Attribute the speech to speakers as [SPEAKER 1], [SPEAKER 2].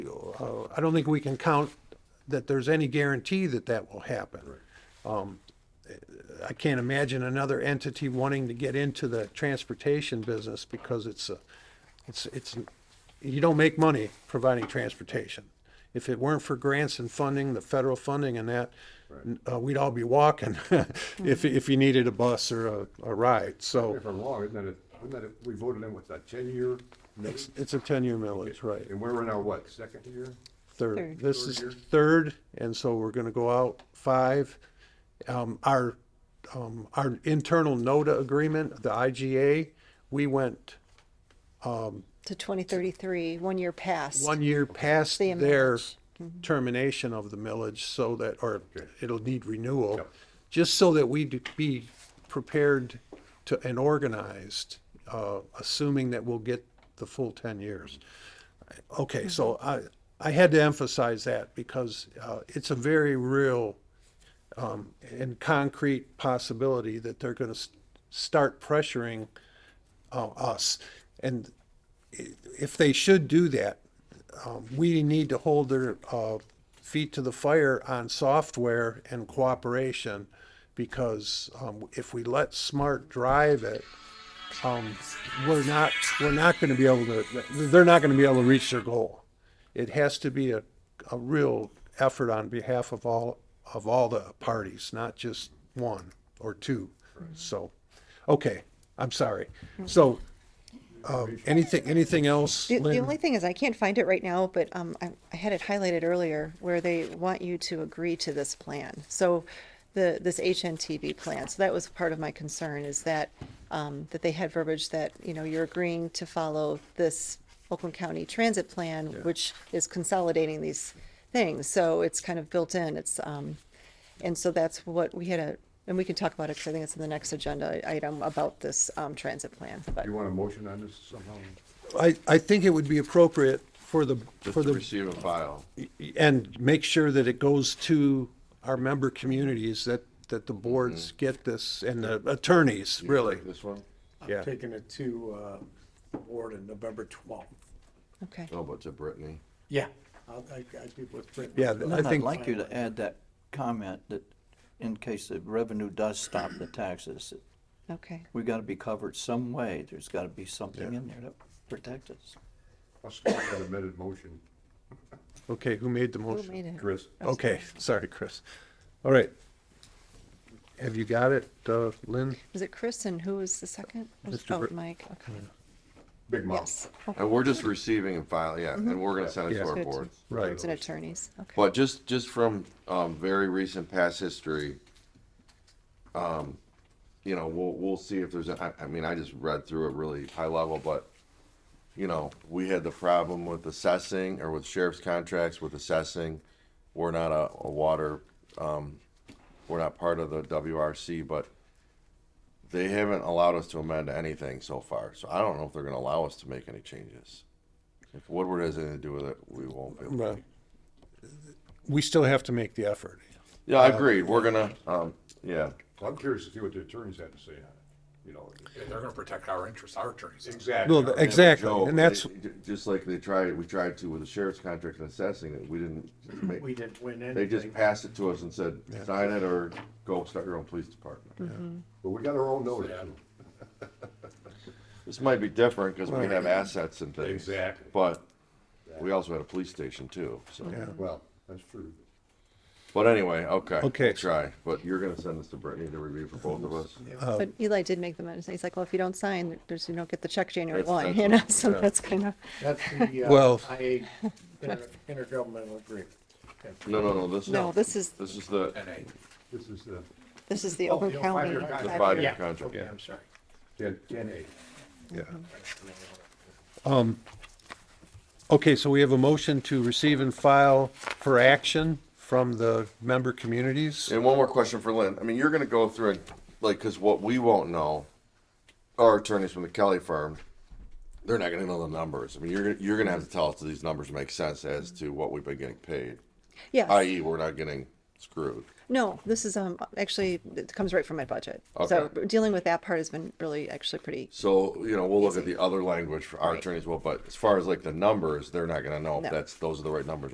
[SPEAKER 1] Uh, I don't think we can count that there's any guarantee that that will happen. Um, I can't imagine another entity wanting to get into the transportation business because it's, a- it's, it's, you don't make money providing transportation. If it weren't for grants and funding, the federal funding and that, uh, we'd all be walking if, if you needed a bus or a, a ride. So
[SPEAKER 2] If I'm wrong, isn't that, a- isn't that, a- we voted in with a ten-year,
[SPEAKER 1] it's, it's a ten-year millage, right?
[SPEAKER 2] and we're in our what, second year?
[SPEAKER 1] Third.
[SPEAKER 3] Third.
[SPEAKER 1] This
[SPEAKER 2] Third
[SPEAKER 1] is
[SPEAKER 2] year?
[SPEAKER 1] third, and so we're gonna go out five. Um, our, um, our internal NODA agreement, the IGA, we went
[SPEAKER 3] to 2033, one year past.
[SPEAKER 1] one year past
[SPEAKER 3] The
[SPEAKER 1] their
[SPEAKER 3] millage.
[SPEAKER 1] termination of the millage so that, or
[SPEAKER 2] Okay.
[SPEAKER 1] it'll need renewal.
[SPEAKER 2] Yep.
[SPEAKER 1] Just so that we'd be prepared to, and organized, uh, assuming that we'll get the full ten years. Okay, so I, I had to emphasize that because, uh, it's a very real, um, and concrete possibility that they're gonna s- start pressuring, uh, us. And if they should do that, um, we need to hold their uh, feet to the fire on software and cooperation because um, if we let smart drive it, um, we're not we're not going to be able to they're not going to be able to reach their goal. It has to be a, a real effort on behalf of all of all the parties, not just one or two. So, okay, I'm sorry. So, um, anything anything else?
[SPEAKER 3] The, the
[SPEAKER 1] Lynn?
[SPEAKER 3] only thing is, I can't find it right now, but um, I, I had it highlighted earlier where they want you to agree to this plan. So the, this HNTB plan, so that was part of my concern is that, um, that they had verbiage that, you know, you're agreeing to follow this Oakland County Transit Plan, which is consolidating these things. So it's kind of built in. It's, um, and so that's what we had a, and we can talk about it because I think it's in the next agenda item about this, um, transit plan, but.
[SPEAKER 2] Do you want a motion on this somehow?
[SPEAKER 1] I, I think it would be appropriate for the,
[SPEAKER 4] Just
[SPEAKER 1] for
[SPEAKER 4] to
[SPEAKER 1] the,
[SPEAKER 4] receive and file.
[SPEAKER 1] and make sure that it goes to our member communities, that, that the boards get this, and the attorneys, really,
[SPEAKER 4] This one?
[SPEAKER 1] yeah.
[SPEAKER 5] I'm taking it to uh, Ward on November 12th.
[SPEAKER 3] Okay.
[SPEAKER 4] Oh, but to Brittany.
[SPEAKER 5] Yeah. I'll, I, I do with Brittany.
[SPEAKER 1] Yeah, I
[SPEAKER 6] Lynn, I'd
[SPEAKER 1] think-
[SPEAKER 6] like you to add that comment that in case the revenue does stop the taxes,
[SPEAKER 3] Okay.
[SPEAKER 6] we gotta be covered some way. There's gotta be something in there to protect us.
[SPEAKER 2] I'll support that amended motion,
[SPEAKER 1] Okay, who made the
[SPEAKER 3] Who
[SPEAKER 1] motion?
[SPEAKER 3] made it?
[SPEAKER 2] Chris.
[SPEAKER 1] Okay, sorry, Chris. All right. Have you got it, uh, Lynn?
[SPEAKER 3] Was it Chris and who was the second? Was-
[SPEAKER 1] Mr.
[SPEAKER 3] Oh,
[SPEAKER 1] Br-
[SPEAKER 3] Mike, okay.
[SPEAKER 2] Big mouth.
[SPEAKER 3] Yes.
[SPEAKER 4] And we're just receiving and filing, yeah, and we're gonna send it
[SPEAKER 1] Yeah.
[SPEAKER 4] to our
[SPEAKER 3] Good.
[SPEAKER 4] boards.
[SPEAKER 1] Right.
[SPEAKER 3] It's an attorney's, okay.
[SPEAKER 4] But just, just from, um, very recent past history, um, you know, we'll, we'll see if there's, a- I, I mean, I just read through it really high level, but, you know, we had the problem with assessing or with sheriff's contracts with assessing. We're not a, a water, um, we're not part of the WRC, but they haven't allowed us to amend anything so far. So I don't know if they're gonna allow us to make any changes. If Woodward has anything to do with it, we won't be able to.
[SPEAKER 1] Well, We still have to make the effort.
[SPEAKER 4] Yeah,
[SPEAKER 1] Uh,
[SPEAKER 4] I agree. We're gonna, um, yeah,
[SPEAKER 2] Well, I'm curious to see what the attorneys had to say on it, you know.
[SPEAKER 7] they're gonna protect our interests, our attorneys.
[SPEAKER 2] Exactly.
[SPEAKER 1] No, exactly,
[SPEAKER 4] Joe,
[SPEAKER 1] and that's,
[SPEAKER 4] they- j- Just like they tried, we tried to with the sheriff's contract and assessing it, we didn't
[SPEAKER 5] We
[SPEAKER 4] make,
[SPEAKER 5] didn't win anything.
[SPEAKER 4] they just passed it to us and said, sign it or go start your own police department.
[SPEAKER 2] But we got our own notice.
[SPEAKER 4] This might be different, cause we have assets and things.
[SPEAKER 2] Exactly.
[SPEAKER 4] But we also had a police station too, so,
[SPEAKER 2] Well, that's true.
[SPEAKER 4] but anyway, okay. we'll
[SPEAKER 1] Okay.
[SPEAKER 4] Try, but you're gonna send this to Brittany to review for both of us?
[SPEAKER 3] But Eli did make the mention, he's like, well, if you don't sign, there's, you don't get the check January one,
[SPEAKER 4] That's- that's
[SPEAKER 3] you know,
[SPEAKER 4] what-
[SPEAKER 3] so that's kind of,
[SPEAKER 5] That's the, uh,
[SPEAKER 1] Well-
[SPEAKER 5] IA, inter- intergovernmental agreement.
[SPEAKER 4] No, no, no, this is.
[SPEAKER 3] no, this is,
[SPEAKER 4] This is the,
[SPEAKER 7] And I,
[SPEAKER 2] This is the
[SPEAKER 3] this is the
[SPEAKER 2] Oh,
[SPEAKER 3] Oakland
[SPEAKER 2] you know,
[SPEAKER 3] County.
[SPEAKER 2] five-year
[SPEAKER 4] the
[SPEAKER 2] contract.
[SPEAKER 3] five-year-
[SPEAKER 4] five-year contract.
[SPEAKER 5] Okay, I'm sorry.
[SPEAKER 2] ten, ten A.
[SPEAKER 1] yeah. Um, Okay, so we have a motion to receive and file for action from the member communities.
[SPEAKER 4] And one more question for Lynn. I mean, you're gonna go through and, like, cause what we won't know, our attorneys from the Kelly firm, they're not gonna know the numbers. I mean, you're, gonna- you're gonna have to tell us that these numbers make sense as to what we've been getting paid,
[SPEAKER 3] Yes,
[SPEAKER 4] i.e. we're not getting screwed.
[SPEAKER 3] no, this is, um, actually, it comes right from my budget. So
[SPEAKER 4] Okay.
[SPEAKER 3] dealing with that part has been really actually pretty,
[SPEAKER 4] So, you know, we'll look at the other language for our attorneys, well, but as far as like the numbers, they're not gonna know if
[SPEAKER 3] No.
[SPEAKER 4] that's, those are the right numbers